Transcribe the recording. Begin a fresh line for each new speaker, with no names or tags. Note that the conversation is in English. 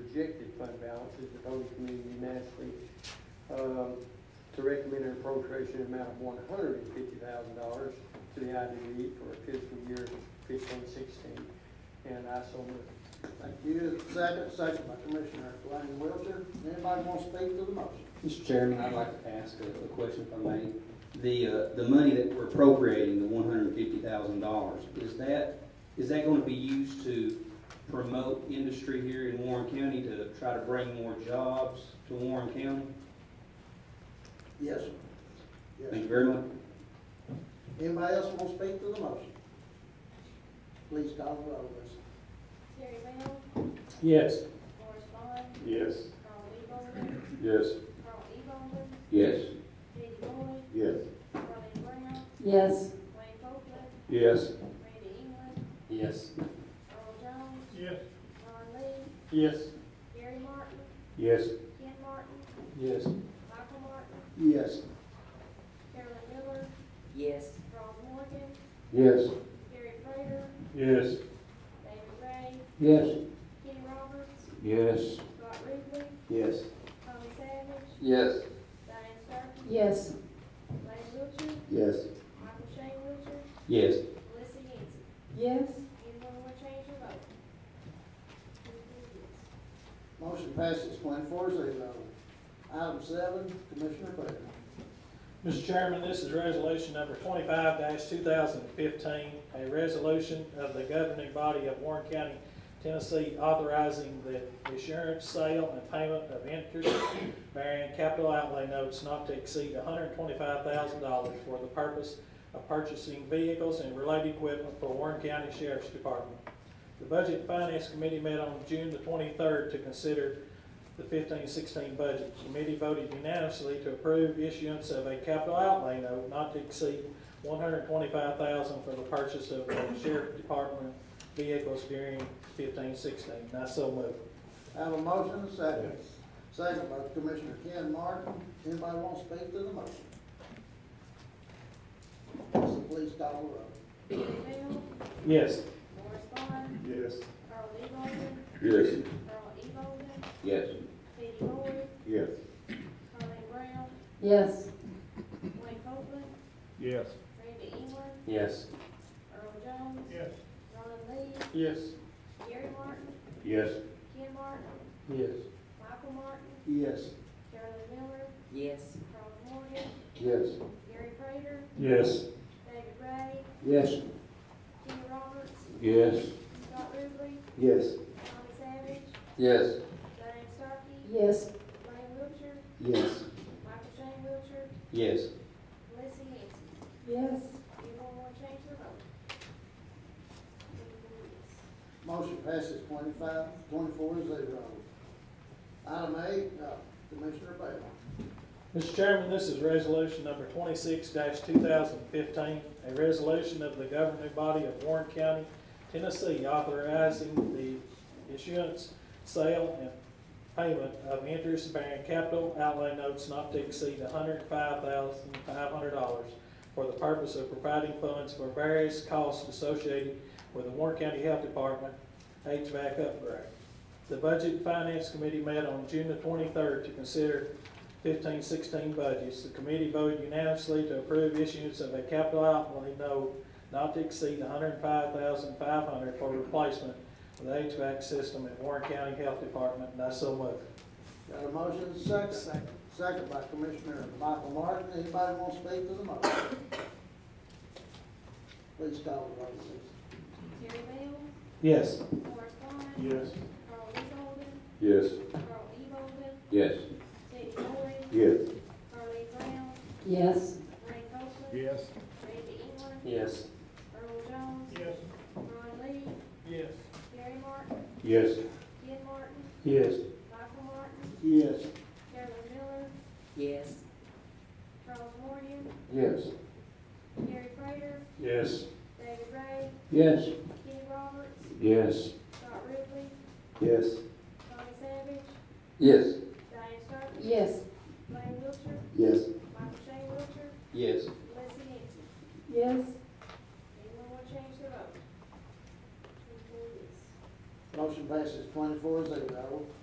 projected fund balance is the Holy Community unanimously um, to recommend an appropriation amount of one hundred and fifty thousand dollars to the IDE for fiscal year fifteen sixteen. And I so move.
Thank you. Second, second by Commissioner Glenn Wiltshire. Anybody want to speak to the motion?
Mr. Chairman, I'd like to ask a a question if I may. The, uh, the money that we're appropriating, the one hundred and fifty thousand dollars, is that, is that going to be used to promote industry here in Warren County to try to bring more jobs to Warren County?
Yes, sir. Yes.
Thank you very much.
Anybody else want to speak to the motion? Please call the roll, Lisa.
Terry Bell,
Yes.
Morris Bond,
Yes.
Carl Eagle,
Yes.
Carl Eagle,
Yes.
Eddie Boyd,
Yes.
Ronnie Brown,
yes,
Wayne Copeland,
Yes.
Randy England,
Yes.
Earl Jones,
Yes.
Ron Lee,
Yes.
Gary Martin,
Yes.
Ken Martin,
Yes.
Michael Martin,
Yes.
Carolyn Miller,
yes,
Ron Morgan,
Yes.
Gary Prater,
Yes.
David Ray,
Yes.
Kenny Roberts,
Yes.
Scott Ruble,
Yes.
Tommy Savage,
Yes.
Diane Starkey,
yes,
Lane Wiltshire,
Yes.
Michael Shane Wiltshire,
Yes.
Melissa Yancey.
yes,
Anyone want to change your vote? Who did this?
Motion passes twenty-four zero. Item seven, Commissioner Baker.
Mr. Chairman, this is resolution number twenty-five two thousand and fifteen, a resolution of the governing body of Warren County, Tennessee, authorizing the assurance, sale, and payment of interest-bearing capital outlay notes not to exceed hundred and twenty-five thousand dollars for the purpose of purchasing vehicles and related equipment for Warren County Sheriff's Department. The Budget and Finance Committee met on June the twenty-third to consider the fifteen sixteen budget. The Committee voted unanimously to approve issuance of a capital outlay note not to exceed one hundred twenty-five thousand for the purchase of the sheriff department vehicles during fifteen sixteen. And I so move.
I have a motion and a second. Second by Commissioner Ken Martin. Anybody want to speak to the motion? Lisa, please call the roll.
Terry Bell,
Yes.
Morris Bond,
Yes.
Carl E. Bolden,
Yes.
Carl E. Bolden,
Yes.
Teddy Boyd,
Yes.
Carleen Brown,
yes,
Wayne Copeland,
Yes.
Randy England,
Yes.
Earl Jones,
Yes.
Ron Lee,
Yes.
Gary Martin,
Yes.
Ken Martin,
Yes.
Michael Martin,
Yes.
Carolyn Miller,
yes,
Ron Morgan,
Yes.
Gary Prater,
Yes.
David Ray,
Yes.
Kenny Roberts,
Yes.
Scott Ruble,
Yes.
Tommy Savage,
Yes.
Diane Starkey,
yes,
Lane Wiltshire,
Yes.
Michael Shane Wiltshire,
Yes.
Melissa Yancey.
yes,
Anyone want to change their vote?
Motion passes twenty-five, twenty-four zero. Item eight, uh, Commissioner Baker.
Mr. Chairman, this is resolution number twenty-six two thousand fifteen, a resolution of the governing body of Warren County, Tennessee, authorizing the issuance, sale, and payment of interest-bearing capital outlay notes not to exceed hundred and five thousand five hundred dollars for the purpose of providing funds for various costs associated with the Warren County Health Department HVAC upgrade. The Budget and Finance Committee met on June the twenty-third to consider fifteen sixteen budgets. The committee voted unanimously to approve issuance of a capital outlay note not to exceed hundred and five thousand five hundred for replacement of the HVAC system at Warren County Health Department, and I so move.
Got a motion and a second? Second. by Commissioner Michael Martin. Anybody want to speak to the motion? Please call the roll, please.
Terry Bell,
Yes.
Morris Bond,
Yes.
Carl E. Bolden,
Yes.
Carl E. Bolden,
Yes.
Teddy Boyd,
Yes.
Carly Brown,
yes,
Wayne Copeland,
Yes.
Randy England,
Yes.
Earl Jones,
Yes.
Ron Lee,
Yes.
Gary Martin,
Yes.
Ken Martin,
Yes.
Michael Martin,
Yes.
Carolyn Miller,
yes,
Charles Morgan,
Yes.
Gary Prater,
Yes.
David Ray,
Yes.
Kenny Roberts,
Yes.
Scott Ruble,
Yes.
Tommy Savage,
Yes.